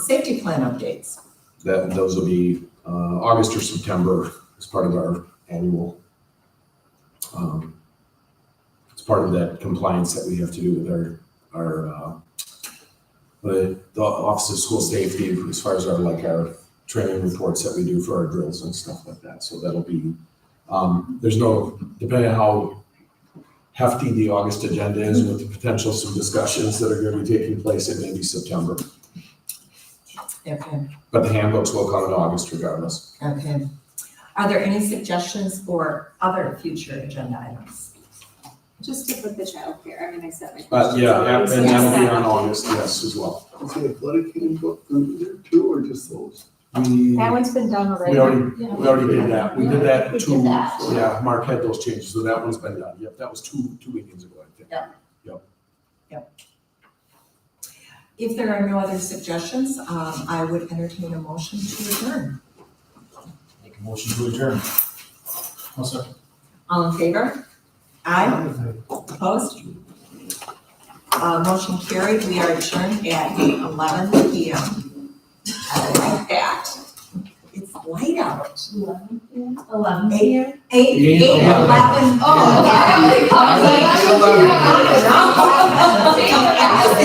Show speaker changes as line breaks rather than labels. Safety plan updates.
That, those will be uh, August or September as part of our annual. um, It's part of that compliance that we have to do with our, our, uh, the the Office of School Safety as far as our, like, our training reports that we do for our drills and stuff like that. So that'll be, um, there's no, depending on how hefty the August agenda is with the potential some discussions that are going to be taking place, it may be September.
Okay,
But the handbooks will come in August regardless.
okay. Are there any suggestions for other future agenda items?
Just to put the childcare, I mean, I set my.
Uh, yeah, yeah, and
Yes.
that'll be on Augest, yes, as well.
Is the athletic handbook under there too, or just those?
We, we
That one's been done already.
already,
Yeah.
we already did that, we did that
We did
two,
that.
yeah, Mark had those changes, so that one's been done, yep, that was two, two weekends ago, I think.
If there are no other suggestions, um, I would entertain a motion to adjourn.
Make a motion to adjourn. I'll second.
All in favor? Aye, opposed? Uh, motion carried, we are adjourned at eleven P M. I like that. It's light out.
Eleven.
Eight, eight, eight,
Eight, eleven.
eleven.
Oh, okay. I was like, I was like,
Eleven.
I'm-